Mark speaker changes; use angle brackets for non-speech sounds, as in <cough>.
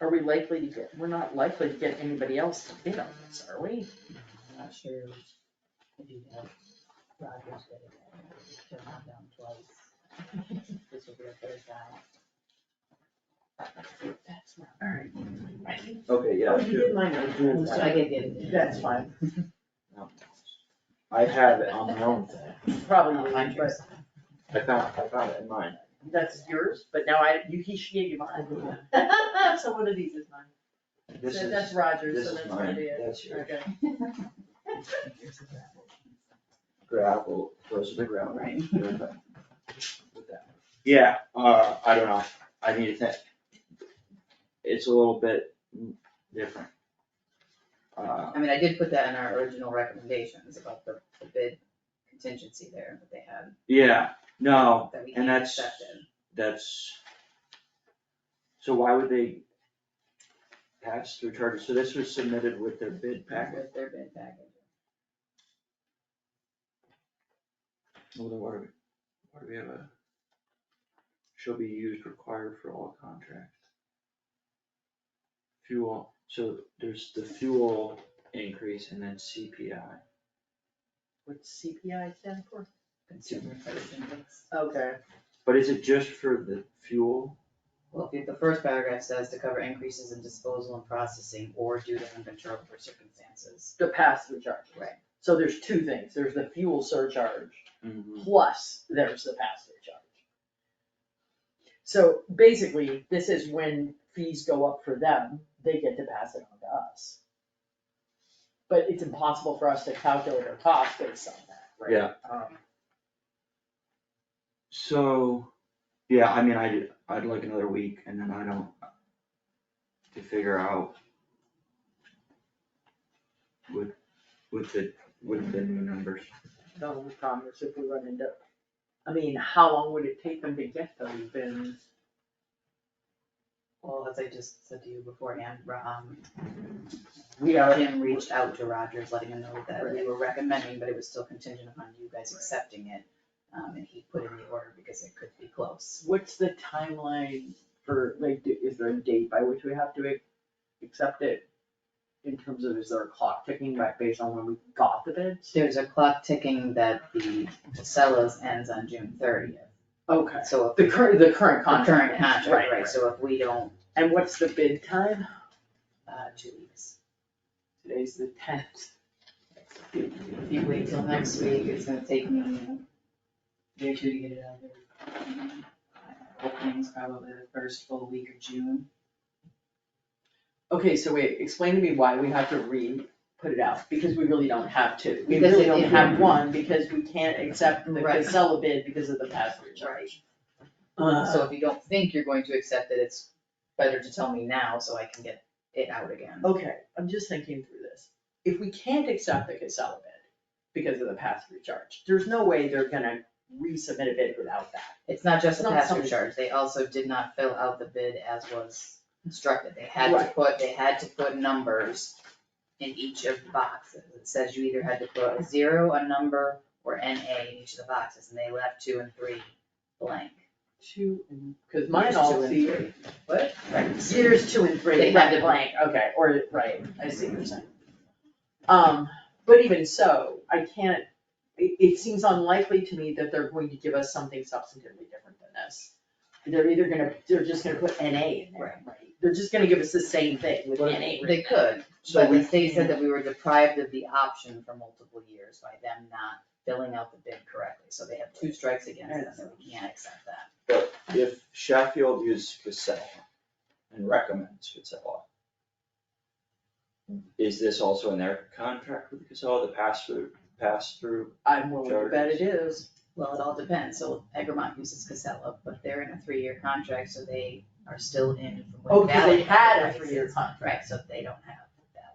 Speaker 1: Are we likely to get, we're not likely to get anybody else to bid on this, are we?
Speaker 2: I'm not sure if you have Rogers did it, turned it down twice.
Speaker 1: <laughs>
Speaker 2: This will be a third time. That's not.
Speaker 3: Alright.
Speaker 4: Okay, yeah,
Speaker 3: If you didn't mind, I'll do
Speaker 2: So I
Speaker 3: that.
Speaker 2: get it.
Speaker 3: That's fine.
Speaker 4: I have it on my own.
Speaker 1: Probably, but
Speaker 4: I found, I found it in mine.
Speaker 1: that's yours, but now I, you, he, she gave you mine. <laughs> So one of these is mine.
Speaker 4: This
Speaker 1: So
Speaker 4: is,
Speaker 1: that's Rogers,
Speaker 4: this
Speaker 1: so
Speaker 4: is
Speaker 1: that's what it
Speaker 4: mine,
Speaker 1: is.
Speaker 4: that's your
Speaker 1: Okay.
Speaker 4: gravel, those are the gravel.
Speaker 3: Right.
Speaker 4: Okay. With that. Yeah, uh, I don't know, I need to think. It's a little bit different. Uh,
Speaker 2: I mean, I did put that in our original recommendations about the the bid contingency there that they had,
Speaker 4: yeah, no,
Speaker 2: that we
Speaker 4: And
Speaker 2: can't
Speaker 4: that's-
Speaker 2: accept it.
Speaker 4: that's. So why would they pass through charter, so this was submitted with their bid packet?
Speaker 2: With their bid package.
Speaker 4: Well, then what do we, what do we have a? Shall be used required for all contracts. Fuel, so there's the fuel increase and then CPI.
Speaker 1: What's CPI stand for?
Speaker 2: Consumer price index.
Speaker 1: Okay.
Speaker 4: But is it just for the fuel?
Speaker 2: Well, if the first paragraph says to cover increases in disposal and processing or due to uncontrollable circumstances.
Speaker 1: The pass-through charge.
Speaker 2: Right.
Speaker 1: So there's two things, there's the fuel surcharge
Speaker 4: Mm-hmm.
Speaker 1: plus there's the pass-through charge. So basically, this is when fees go up for them, they get to pass it on to us. But it's impossible for us to calculate our cost based on that, right?
Speaker 4: Yeah.
Speaker 1: Um,
Speaker 4: So, yeah, I mean, I'd, I'd like another week and then I don't. To figure out. With, with the, with the new numbers.
Speaker 1: The only problem is if we run into, I mean, how long would it take them to get those bins?
Speaker 2: Well, as I just said to you beforehand, um,
Speaker 1: We are,
Speaker 2: Jim reached out to Rogers, letting him know that we were recommending, but it was still contingent upon you guys accepting it. Um, and he put in the order because it could be close.
Speaker 1: what's the timeline for, like, do- is there a date by which we have to ac- accept it? In terms of, is there a clock ticking by based on when we got the bids?
Speaker 2: There's a clock ticking that the Casellas ends on June thirtieth.
Speaker 1: Okay.
Speaker 2: So if
Speaker 1: The current, the current
Speaker 2: the
Speaker 1: contract,
Speaker 2: current contract,
Speaker 1: Right,
Speaker 2: right,
Speaker 1: right.
Speaker 2: so if we don't,
Speaker 1: and what's the bid time?
Speaker 2: uh, two weeks.
Speaker 1: Today's the tenth.
Speaker 2: If you wait till next week, it's gonna take me day or two to get it out there. Uh, Opening's probably the first full week of June.
Speaker 1: Okay, so wait, explain to me why we have to re, put it out, because we really don't have to. We
Speaker 2: Because
Speaker 1: really
Speaker 2: it-
Speaker 1: don't
Speaker 2: it-
Speaker 1: have one, because we can't accept the
Speaker 2: Right.
Speaker 1: Casella bid because of the pass-through charge. Uh,
Speaker 2: So if you don't think you're going to accept it, it's better to tell me now so I can get it out again.
Speaker 1: okay, I'm just thinking through this. If we can't accept the Casella bid because of the pass-through charge, there's no way they're gonna resubmit a bid without that.
Speaker 2: It's not just
Speaker 1: It's
Speaker 2: the
Speaker 1: not
Speaker 2: pass-through
Speaker 1: something-
Speaker 2: charge, they also did not fill out the bid as was instructed, they had to
Speaker 1: Right.
Speaker 2: put, they had to put numbers in each of the boxes, it says you either had to put a zero, a number, or NA in each of the boxes, and they left two and three blank.
Speaker 1: Two, and- cause
Speaker 2: Here's
Speaker 1: mine
Speaker 2: two
Speaker 1: all
Speaker 2: and
Speaker 1: see.
Speaker 2: three. What?
Speaker 1: Years two and three,
Speaker 2: They
Speaker 1: right,
Speaker 2: have it.
Speaker 1: blank, okay, or, right, I see what you're saying. Um, but even so, I can't, it, it seems unlikely to me that they're going to give us something substantively different than this. They're either gonna, they're just gonna put NA in there, right? They're just gonna give us the same thing with NA
Speaker 4: But-
Speaker 1: written.
Speaker 2: They could,
Speaker 4: So
Speaker 2: but
Speaker 4: we
Speaker 2: the state said that we were deprived of the option for multiple years by them not filling out the bid correctly, so they have two strikes against them, so we can't accept that.
Speaker 4: If Sheffield uses Casella and recommends Casella. Is this also in their contract with Casella, the pass through, pass through?
Speaker 1: I'm willing to bet it is.
Speaker 2: Well, it all depends, so Egremont uses Casella, but they're in a three-year contract, so they are still in from
Speaker 1: Oh,
Speaker 2: when
Speaker 1: cause they
Speaker 2: Valley
Speaker 1: had a
Speaker 2: prices.
Speaker 1: three-year contract.
Speaker 2: Right, so they don't have